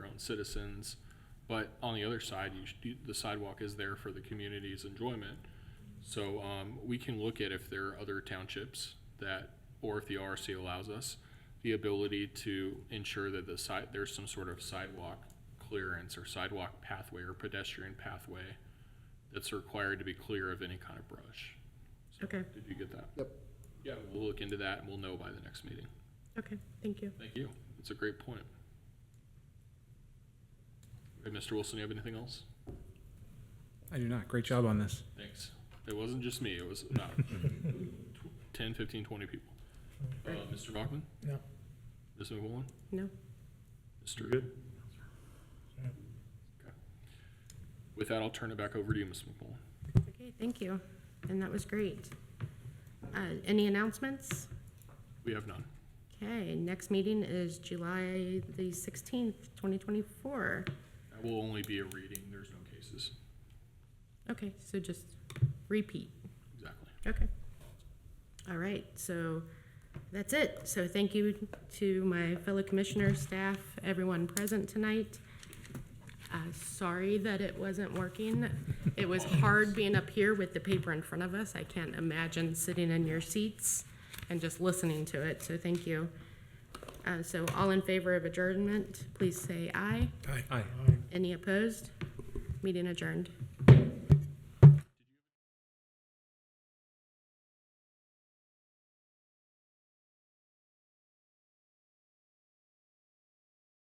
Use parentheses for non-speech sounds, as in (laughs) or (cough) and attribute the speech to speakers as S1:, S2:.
S1: citizens. But on the other side, you, should- you- the sidewalk is there for the community's enjoyment. So, um, we can look at if there are other townships that, or if the RC allows us, the ability to ensure that the side, there's some sort of sidewalk clearance or sidewalk pathway or pedestrian pathway that's required to be clear of any kind of brush. So,
S2: Okay.
S1: Did you get that?
S3: Yep.
S1: Yeah, we'll look into that and we'll know by the next meeting.
S2: Okay, thank you.
S1: Thank you. That's a great point. Hey, Mr. Wilson, you have anything else?
S4: I do not. Great job on this.
S1: Thanks. It wasn't just me, it was (laughs) about tw- 10, 15, 20 people. Uh, Mr. Bachman?
S5: No.
S1: Ms. McMillan?
S2: No?
S1: Mr. Good? With that, I'll turn it back over to you, Ms. McMillan.
S2: Okay, thank you. And that was great. Uh, Any announcements?
S1: We have none.
S2: Okay, next meeting is July the 16th, 2024.
S1: That will only be a reading, there's no cases.
S2: Okay, so just repeat.
S1: Exactly.
S2: Okay. All right, so that's it. So thank you to my fellow commissioners, staff, everyone present tonight. Uh, Sorry that it wasn't working. It was hard being up here with the paper in front of us. I can't imagine sitting in your seats and just listening to it, so thank you. Uh, So all in favor of adjournment, please say aye.
S4: Aye.
S2: Any opposed? Meeting adjourned.